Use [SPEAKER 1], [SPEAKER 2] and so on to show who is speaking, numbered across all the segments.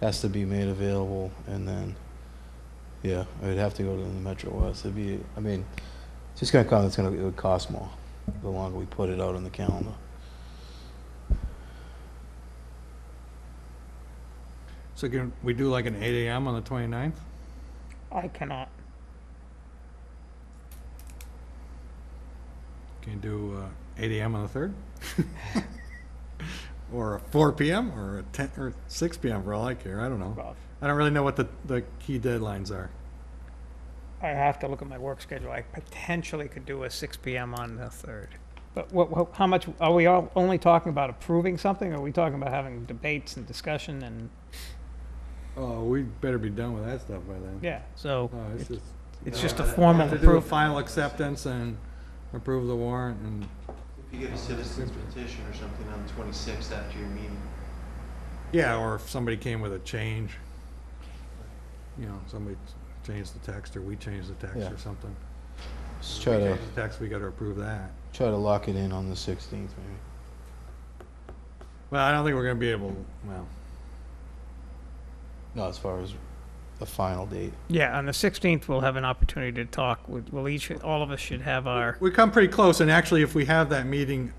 [SPEAKER 1] has to be made available, and then, yeah, it would have to go to the Metro West. It'd be, I mean, it's just gonna come, it's gonna, it would cost more, the longer we put it out on the calendar.
[SPEAKER 2] So can we do like an eight AM on the 29th?
[SPEAKER 3] I cannot.
[SPEAKER 2] Can you do uh, eight AM on the third? Or a four PM or a ten, or six PM for all I care, I don't know.
[SPEAKER 3] Rob.
[SPEAKER 2] I don't really know what the, the key deadlines are.
[SPEAKER 3] I have to look at my work schedule. I potentially could do a 6 PM on the 3rd. But what, what- how much, are we all only talking about approving something? Or are we talking about having debates and discussion and,
[SPEAKER 2] Oh, we better be done with that stuff by then.
[SPEAKER 3] yeah, so
[SPEAKER 2] No, it's just.
[SPEAKER 3] it's just a
[SPEAKER 2] Uh,
[SPEAKER 3] formal
[SPEAKER 2] have to do a
[SPEAKER 3] approval.
[SPEAKER 2] Final acceptance and approve the warrant and,
[SPEAKER 4] If you get a citizen's petition or something on the twenty-sixth after your meeting,
[SPEAKER 2] yeah, or if somebody came with a change. You know, somebody changed the text or we changed the text
[SPEAKER 1] Yeah.
[SPEAKER 2] or something.
[SPEAKER 1] Let's try to,
[SPEAKER 2] Change the Text, we gotta approve that.
[SPEAKER 1] try to lock it in on the sixteenth, maybe.
[SPEAKER 2] Well, I don't think we're gonna be able, well,
[SPEAKER 1] No, as far as the final date.
[SPEAKER 3] Yeah, on the 16th, we'll have an opportunity to talk. with- We'll each, all of us should have our,
[SPEAKER 2] we come pretty close, and actually, if we have that meeting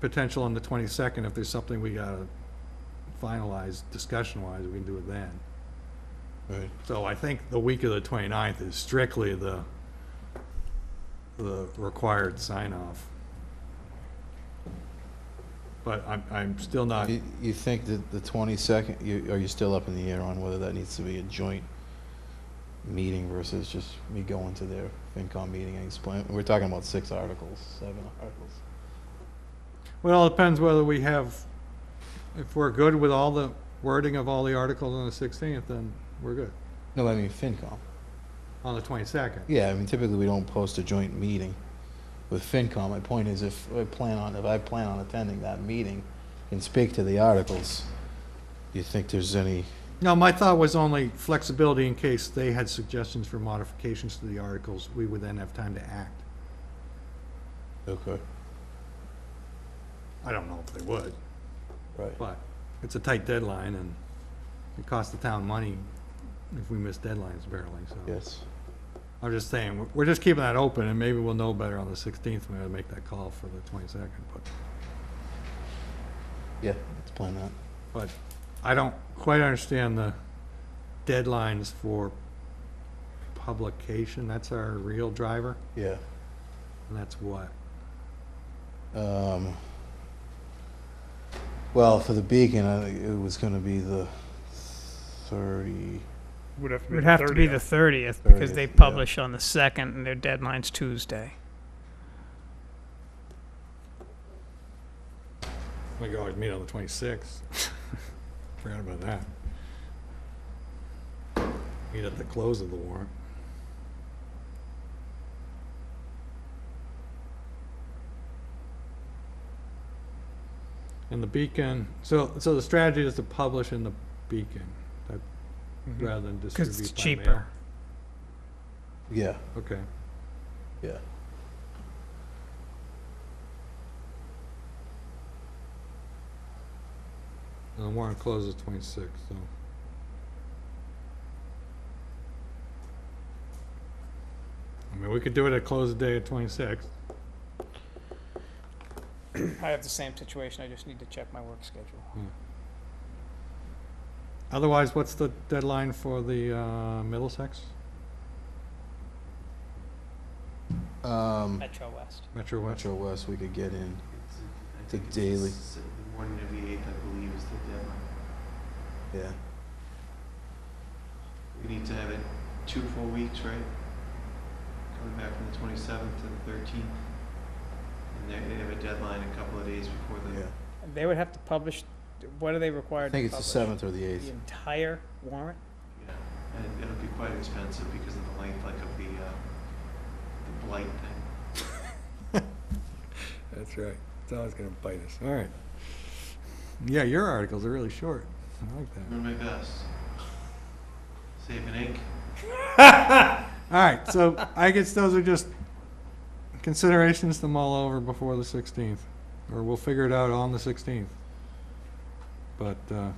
[SPEAKER 2] potential on the twenty-second, if there's something we gotta finalize discussion-wise, we can do it then.
[SPEAKER 1] Right.
[SPEAKER 2] So I think the week of the 29th is strictly the, the required sign-off. But I'm, I'm still not,
[SPEAKER 1] Uh, You, you think that the twenty-second, you, are you still up in the air on whether that needs to be a joint meeting versus just me going to their FinCom meeting and explain, we're talking about six articles, seven articles.
[SPEAKER 2] well, it depends whether we have, if we're good with all the wording of all the articles on the 16th, then we're good.
[SPEAKER 1] No, I mean FinCom.
[SPEAKER 2] On the 22nd.
[SPEAKER 1] Yeah, I mean typically we don't post a joint meeting with FinCom. My point is if I plan on, if I plan on attending that meeting and speak to the articles, you think there's any,
[SPEAKER 2] No, my thought was only flexibility in case they had suggestions for modifications to the articles, we would then have time to act.
[SPEAKER 1] okay,
[SPEAKER 2] I don't know if they would.
[SPEAKER 1] right.
[SPEAKER 2] But it's a tight deadline, and it costs the town money if we miss deadlines barely, so.
[SPEAKER 1] Yes,
[SPEAKER 2] I'm just saying, we're- we're just keeping that open, and maybe we'll know better on the 16th when we make that call for the 22nd. But,
[SPEAKER 1] yeah, let's plan that.
[SPEAKER 2] but I don't quite understand the deadlines for publication. That's our real driver,
[SPEAKER 1] Yeah.
[SPEAKER 2] and that's what?
[SPEAKER 1] Um, well, for the beacon, I think it was going to be the 30.
[SPEAKER 5] Would have to
[SPEAKER 3] it
[SPEAKER 5] be
[SPEAKER 3] would
[SPEAKER 5] the
[SPEAKER 3] have to be the
[SPEAKER 5] 30th.
[SPEAKER 3] 30th because
[SPEAKER 1] 30th,
[SPEAKER 3] they
[SPEAKER 1] yeah.
[SPEAKER 3] publish on the 2nd and their deadline's Tuesday.
[SPEAKER 2] We could always meet on the 26th. Forgot about that. Meet at the close of the warrant. And the Beacon, so, so the strategy is to publish in the Beacon, that, rather than distribute Mm-hmm. by mail?
[SPEAKER 3] Mm-hmm. Because it's cheaper.
[SPEAKER 1] Yeah.
[SPEAKER 2] Okay.
[SPEAKER 1] Yeah.
[SPEAKER 2] And the warrant closes twenty-sixth, so. I mean, we could do it at close of day at twenty-sixth.
[SPEAKER 3] I have the same situation. I just need to check my work schedule.
[SPEAKER 2] Otherwise, what's the deadline for the, uh, Middlesex,
[SPEAKER 1] Um,
[SPEAKER 3] Metro West.
[SPEAKER 2] Metro West?
[SPEAKER 1] Metro West, we could get in.
[SPEAKER 4] it's, I
[SPEAKER 1] The
[SPEAKER 4] think it's
[SPEAKER 1] daily.
[SPEAKER 4] s- The morning of the eighth, I believe, is the deadline.
[SPEAKER 1] Yeah.
[SPEAKER 4] We need to have it two full weeks, right? Coming back from the twenty-seventh to the thirteenth. And they, they have a deadline a couple of days before
[SPEAKER 1] Yeah.
[SPEAKER 4] the,
[SPEAKER 3] They would have to publish, what are they
[SPEAKER 1] I
[SPEAKER 3] required to
[SPEAKER 1] think
[SPEAKER 3] publish?
[SPEAKER 1] it's the 7th or the
[SPEAKER 3] The
[SPEAKER 1] 8th.
[SPEAKER 3] entire warrant?
[SPEAKER 4] yeah. And it'll be quite expensive because of the length, like of the, uh, the blight thing.
[SPEAKER 2] That's right, it's always gonna bite us, all right. Yeah, your articles are really short, I like that.
[SPEAKER 4] Doing my best. Save an ink.
[SPEAKER 2] All right, so I guess those are just considerations to mull over before the 16th, or we'll figure it out on the 16th. But uh,